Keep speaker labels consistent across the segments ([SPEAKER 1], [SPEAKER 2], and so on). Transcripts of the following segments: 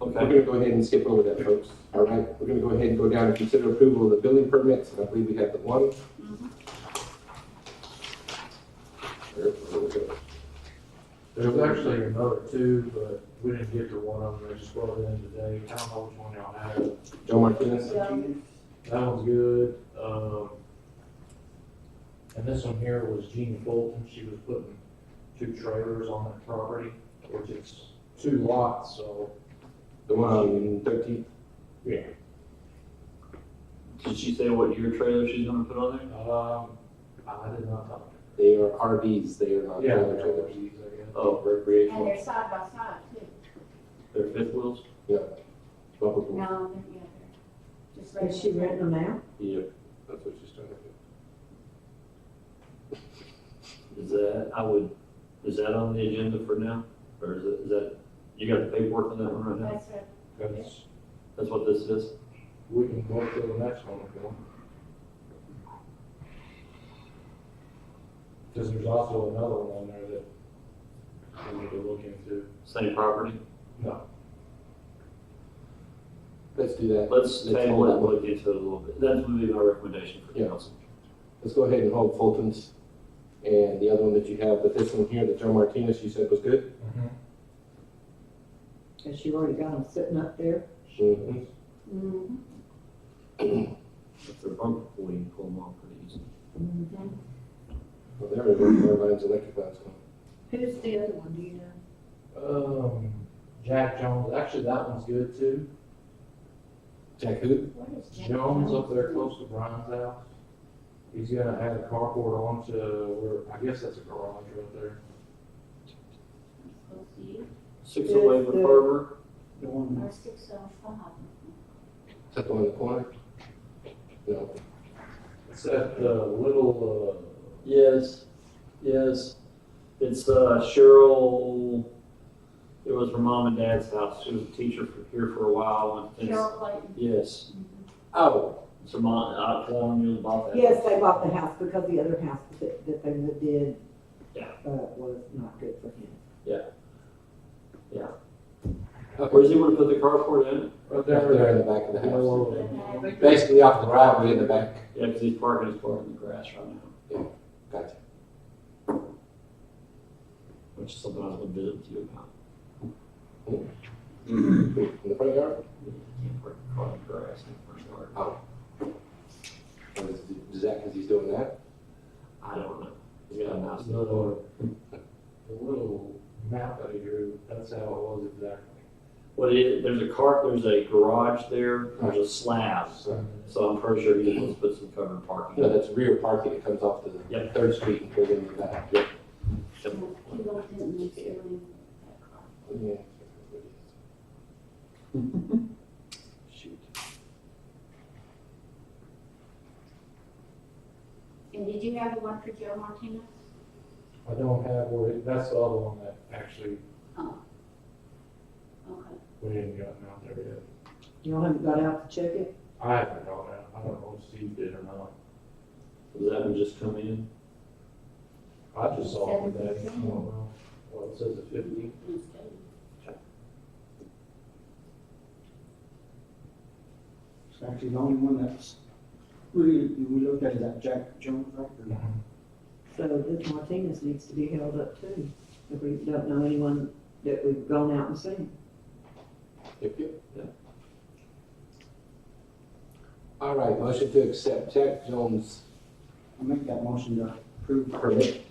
[SPEAKER 1] We're gonna go ahead and skip over that, folks. All right, we're gonna go ahead and go down and consider approval of the building permits, and I believe we have the one. There, there we go.
[SPEAKER 2] There's actually another two, but we didn't get to one of them, they just brought it in today, I don't know which one y'all have.
[SPEAKER 1] Joe Martinez,
[SPEAKER 2] That one's good, um, and this one here was Jean Fulton, she was putting two trailers on that property, which is two lots, so.
[SPEAKER 1] the one on thirteen,
[SPEAKER 2] Yeah.
[SPEAKER 3] Did she say what year trailer she's gonna put on there?
[SPEAKER 2] Um, I did not talk to
[SPEAKER 1] they are RVs, they are not
[SPEAKER 2] her. Yeah.
[SPEAKER 1] trailer trailers.
[SPEAKER 3] Oh,
[SPEAKER 4] And
[SPEAKER 1] Recreational,
[SPEAKER 4] they're side by side too.
[SPEAKER 3] they're fifth wheels?
[SPEAKER 1] bumpable.
[SPEAKER 4] No, they're together. Just
[SPEAKER 5] Is she
[SPEAKER 4] regular.
[SPEAKER 5] renting them out?
[SPEAKER 1] Yep, that's what she's trying to do.
[SPEAKER 3] Is that, I would, is that on the agenda for now? Or is it, is that, you got the paperwork on that one right now?
[SPEAKER 4] That's right.
[SPEAKER 2] That's,
[SPEAKER 3] That's what this is?
[SPEAKER 2] we can go to the next one if you want. Cause there's also another one on there that we need to look into.
[SPEAKER 3] Same property?
[SPEAKER 1] Let's do that.
[SPEAKER 3] Let's
[SPEAKER 1] Let's hold
[SPEAKER 3] table it
[SPEAKER 1] that
[SPEAKER 3] and
[SPEAKER 1] one.
[SPEAKER 3] look into it a little bit. That would be my recommendation for
[SPEAKER 1] Yeah.
[SPEAKER 3] council.
[SPEAKER 1] Let's go ahead and hold Fulton's and the other one that you have, but this one here that Joe Martinez, you said was good?
[SPEAKER 5] Has she already got them sitting up there?
[SPEAKER 1] Mhm.
[SPEAKER 5] Mm-hmm.
[SPEAKER 3] If they're bumper pool, you can pull them off pretty easy.
[SPEAKER 5] Mm-hmm.
[SPEAKER 1] Well, there we go, everybody's electric lights on.
[SPEAKER 5] Who's the other one, do you know?
[SPEAKER 2] Um, Jack Jones, actually, that one's good too.
[SPEAKER 1] Jack who?
[SPEAKER 4] What is that?
[SPEAKER 2] Jones up there close to Brian's house. He's gonna add a carport onto where, I guess that's a garage right there.
[SPEAKER 4] Close to you.
[SPEAKER 3] Six oh eight with Harbor,
[SPEAKER 5] The one
[SPEAKER 4] Or six oh five.
[SPEAKER 1] Is that the one in the corner? No.
[SPEAKER 2] It's at the little, uh,
[SPEAKER 3] yes, yes. It's uh, Cheryl, it was her mom and dad's house. She was a teacher for, here for a while. and it's-
[SPEAKER 4] Carol Clayton.
[SPEAKER 3] Yes,
[SPEAKER 1] Oh,
[SPEAKER 3] it's her mom, I, Paul knew uh, about that.
[SPEAKER 5] Yes, they bought the house because the other house that, that they lived in,
[SPEAKER 3] Yeah.
[SPEAKER 5] uh, was not good for him.
[SPEAKER 3] Where's he wanna put the carport in?
[SPEAKER 2] uh, right
[SPEAKER 1] Right
[SPEAKER 2] there.
[SPEAKER 1] there in the back of the
[SPEAKER 2] You
[SPEAKER 1] house.
[SPEAKER 2] know, uh,
[SPEAKER 1] Basically off the driveway in the back.
[SPEAKER 3] Yeah, because he's parking his car in the grass right now,
[SPEAKER 1] Gotcha.
[SPEAKER 3] which is something I was gonna visit with you about.
[SPEAKER 1] In the front yard?
[SPEAKER 3] You can't park your car in the grass in the front yard.
[SPEAKER 1] Or is, is that because he's doing that?
[SPEAKER 3] I don't know. He's got a nice
[SPEAKER 2] The little, the little map that he drew, that's how it was exactly.
[SPEAKER 3] Well, it, there's a car, there's a garage there, there's a slab,
[SPEAKER 1] So,
[SPEAKER 3] so I'm pretty sure he's supposed to put some covered
[SPEAKER 1] you
[SPEAKER 3] parking.
[SPEAKER 1] know, that's rear parking that comes off the
[SPEAKER 3] Yep.
[SPEAKER 1] Third Street and goes in the back. Yep.
[SPEAKER 4] He lived in the ceiling.
[SPEAKER 1] Yeah. Shoot.
[SPEAKER 4] And did you have the one for Joe Martinez?
[SPEAKER 2] I don't have, where it- that's the other one that actually
[SPEAKER 4] Okay.
[SPEAKER 2] we didn't gotten out there yet.
[SPEAKER 5] Y'all haven't got out to check it?
[SPEAKER 2] I haven't gone out, I don't know if Steve did or not.
[SPEAKER 3] Does that one just come in?
[SPEAKER 2] I just saw it today. I
[SPEAKER 4] Seventeen.
[SPEAKER 2] don't know. Well, it says the fifty.
[SPEAKER 4] Instead.
[SPEAKER 6] It's actually the only one that's really, we looked at is that Jack Jones record.
[SPEAKER 5] So this Martinez needs to be held up too, if we don't know anyone that we've gone out and seen.
[SPEAKER 1] Yep, yep. All right, motion to accept Jack Jones
[SPEAKER 6] I make that motion to approve
[SPEAKER 1] permit.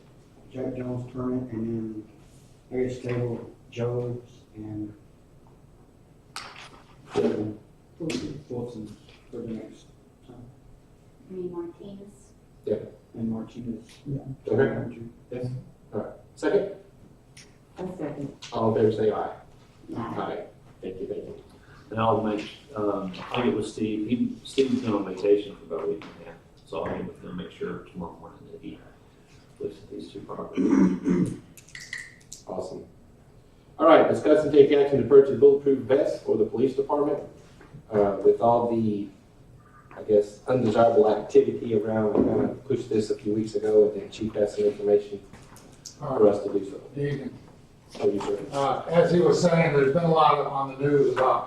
[SPEAKER 6] Jack Jones permit and then Harris Table, Jones and Fulton, Fulton for the next,
[SPEAKER 4] I mean Martinez.
[SPEAKER 6] and Martinez.
[SPEAKER 1] Okay. Second,
[SPEAKER 5] I second.
[SPEAKER 1] all in favor say aye.
[SPEAKER 4] Aye.
[SPEAKER 1] Aye. Thank you, thank you.
[SPEAKER 3] And I'll make, um, I'll get with Steve, he, Steve's been on vacation for about a week and a half, so I'll get with him, make sure tomorrow morning that he looks at these two properties.
[SPEAKER 1] Awesome. All right, discuss and take action to purchase bulletproof vests for the police department. Uh, with all the, I guess, undesirable activity around, I kind of pushed this a few weeks ago, and then Chief has some information for us to do so.
[SPEAKER 7] Good evening.
[SPEAKER 1] How are you, sir?
[SPEAKER 7] Uh, As he was saying, there's been a lot on the news about